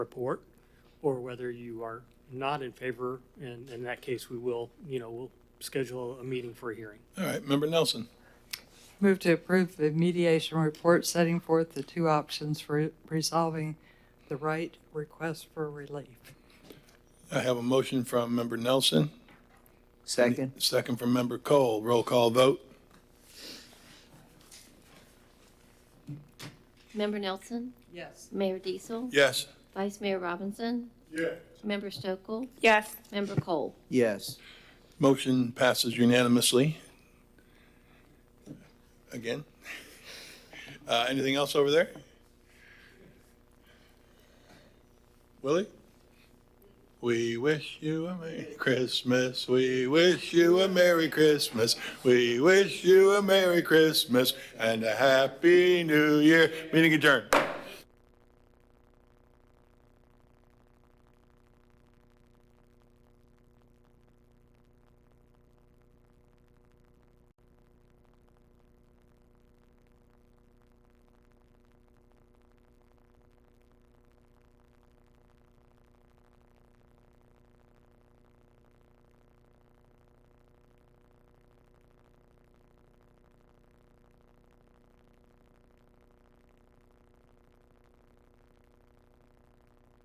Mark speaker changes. Speaker 1: report, or whether you are not in favor, and in that case, we will, you know, we'll schedule a meeting for a hearing.
Speaker 2: All right, Member Nelson.
Speaker 3: Move to approve the mediation report setting forth the two options for resolving the right request for relief.
Speaker 2: I have a motion from Member Nelson,
Speaker 4: Second?
Speaker 2: second from Member Cole. Roll call vote.
Speaker 5: Member Nelson,
Speaker 3: Yes.
Speaker 5: Mayor Diesel,
Speaker 2: Yes.
Speaker 5: Vice Mayor Robinson,
Speaker 2: Yes.
Speaker 5: Member Stokel,
Speaker 6: Yes.
Speaker 5: Member Cole.
Speaker 4: Yes.
Speaker 2: Motion passes unanimously. Again. Uh, anything else over there? Willie? We wish you a Merry Christmas. We wish you a Merry Christmas. We wish you a Merry Christmas and a Happy New Year. Meeting adjourned.